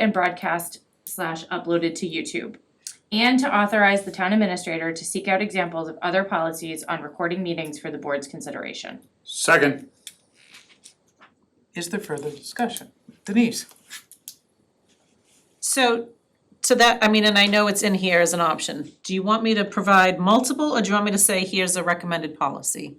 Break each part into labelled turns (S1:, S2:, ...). S1: and broadcast slash uploaded to YouTube. And to authorize the town administrator to seek out examples of other policies on recording meetings for the board's consideration.
S2: Second.
S3: Is there further discussion? Denise?
S4: So to that, I mean, and I know it's in here as an option, do you want me to provide multiple or do you want me to say here's a recommended policy?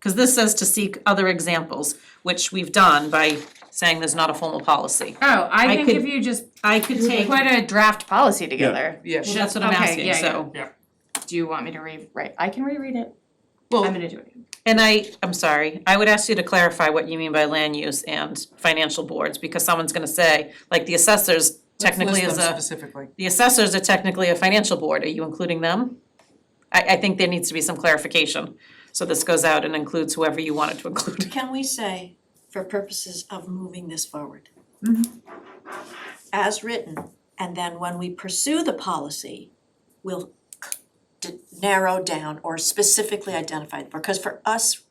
S4: Cause this says to seek other examples, which we've done by saying there's not a formal policy.
S1: Oh, I
S4: I
S1: can
S4: could-
S1: give you just
S4: I could take,
S1: quite a draft policy together.
S3: Yes.
S4: that's what I'm
S1: Okay,
S4: asking,
S1: yeah, yeah.
S4: so,
S1: Do you want me to rewrite? I can reread it. I'm
S3: Well,
S1: gonna do it.
S4: and I, I'm sorry, I would ask you to clarify what you mean by land use and financial boards, because someone's gonna say, like, the assessors technically
S3: list
S4: is a.
S3: them specifically.
S4: the assessors are technically a financial board, are you including them? I, I think there needs to be some clarification, so this goes out and includes whoever you want it to include.
S5: Can we say, for purposes of moving this forward?
S1: Mm-hmm.
S5: As written, and then when we pursue the policy, we'll d- narrow down or specifically identify, because for us,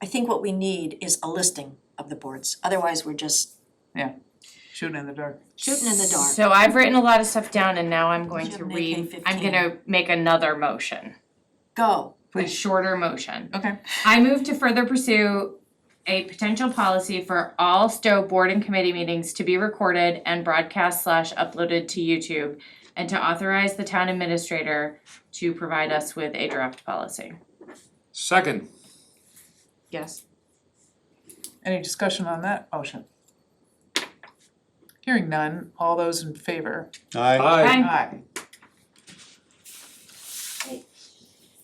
S5: I think what we need is a listing of the boards, otherwise we're just
S3: Shooting in the dark.
S5: shooting in the dark.
S1: So I've written a lot of stuff down and now I'm going
S5: You
S1: to
S5: have an
S1: read,
S5: AK-15.
S1: I'm gonna make another motion,
S5: Go,
S1: a shorter motion.
S3: Okay.
S1: I move to further pursue a potential policy for all Stowe board and committee meetings to be recorded and broadcast slash uploaded to YouTube and to authorize the town administrator to provide us with a draft policy.
S2: Second.
S1: Yes.
S3: Any discussion on that motion? Hearing none, all those in favor?
S6: Aye.
S1: Aye.
S3: Aye.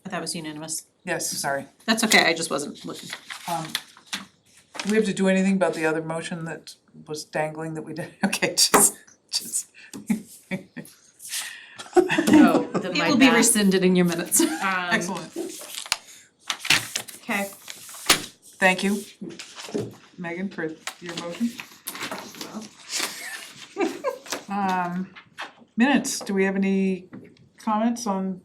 S4: That was unanimous.
S3: Yes, sorry.
S4: That's okay, I just wasn't looking.
S3: Um, Do we have to do anything about the other motion that was dangling that we did? Okay, just, just.
S1: Oh, the
S4: It
S1: my
S4: will be
S1: bad.
S4: rescinded in your minutes.
S1: Um,
S3: Excellent.
S1: okay.
S3: Thank you, Megan, for your motion. Um, minutes, do we have any comments on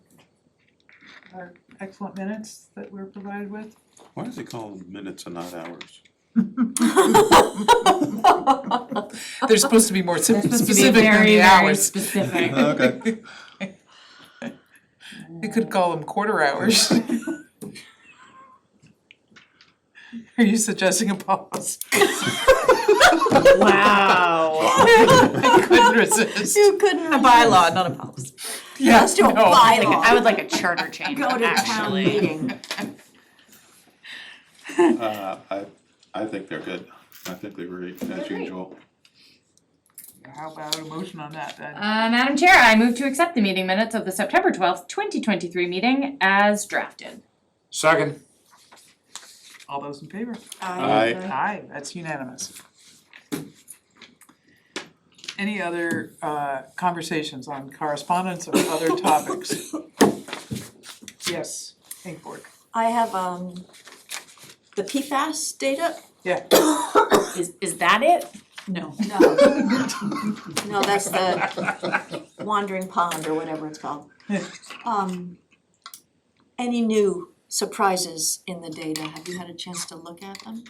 S3: our excellent minutes that we're provided with?
S6: Why is it called minutes and not hours?
S3: They're supposed to be more
S1: That's supposed to be
S3: specific than
S1: very, very
S3: the hours.
S1: specific.
S6: Okay.
S3: We could call them quarter hours. Are you suggesting a policy?
S1: Wow.
S3: I couldn't resist.
S5: you couldn't.
S4: A bylaw, not a policy.
S3: Yeah,
S5: Let's do a
S3: no.
S1: I
S5: bylaw,
S1: would like a charter change,
S5: go to town
S1: actually.
S5: meeting.
S6: Uh, I, I think they're good. I think they're great, as usual.
S3: How about a motion on that then?
S1: Uh, Madam Chair, I move to accept the meeting minutes of the September twelfth, twenty twenty-three meeting as drafted.
S2: Second.
S3: All those in favor?
S6: Aye.
S3: Aye, that's unanimous. Any other uh conversations on correspondence or other topics? Yes, Inkborg,
S5: I have, um, the PFAS data
S3: yeah,
S1: Is, is that it?
S4: No.
S5: No. No, that's the wandering pond or whatever it's called. Um, any new surprises in the data? Have you had a chance to look at them?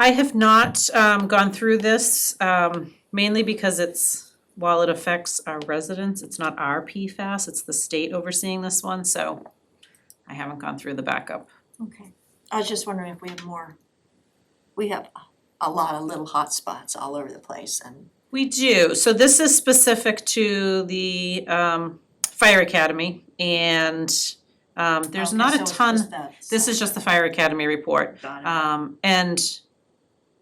S4: I have not um gone through this um mainly because it's, while it affects our residents, it's not our PFAS, it's the state overseeing this one, so I haven't gone through the backup.
S5: Okay. I was just wondering if we have more. We have a lot of little hot spots all over the place and
S4: We do, so this is specific to the um fire academy and um there's
S5: Okay,
S4: not
S5: so
S4: a
S5: it's
S4: ton,
S5: just that
S4: this is just the fire academy report.
S5: Got it.
S4: Um and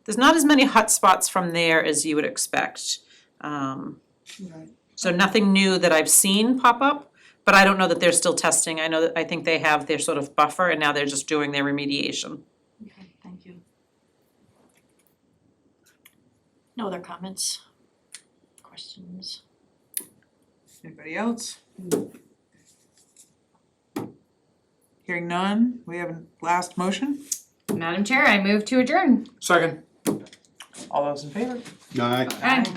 S4: there's not as many hot spots from there as you would expect. Um
S5: Right.
S4: so nothing new that I've seen pop up, but I don't know that they're still testing. I know that I think they have their sort of buffer and now they're just doing their remediation.
S5: Okay, thank you. No other comments? Questions?
S3: anybody else? Hearing none, we have a last motion,
S1: Madam Chair, I move to adjourn.
S2: Second.
S3: all those in favor?
S6: Aye.
S1: Aye.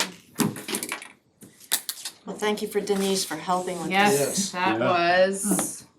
S5: Well, thank you for Denise for helping with this.
S1: Yes, that
S6: Yeah.
S1: was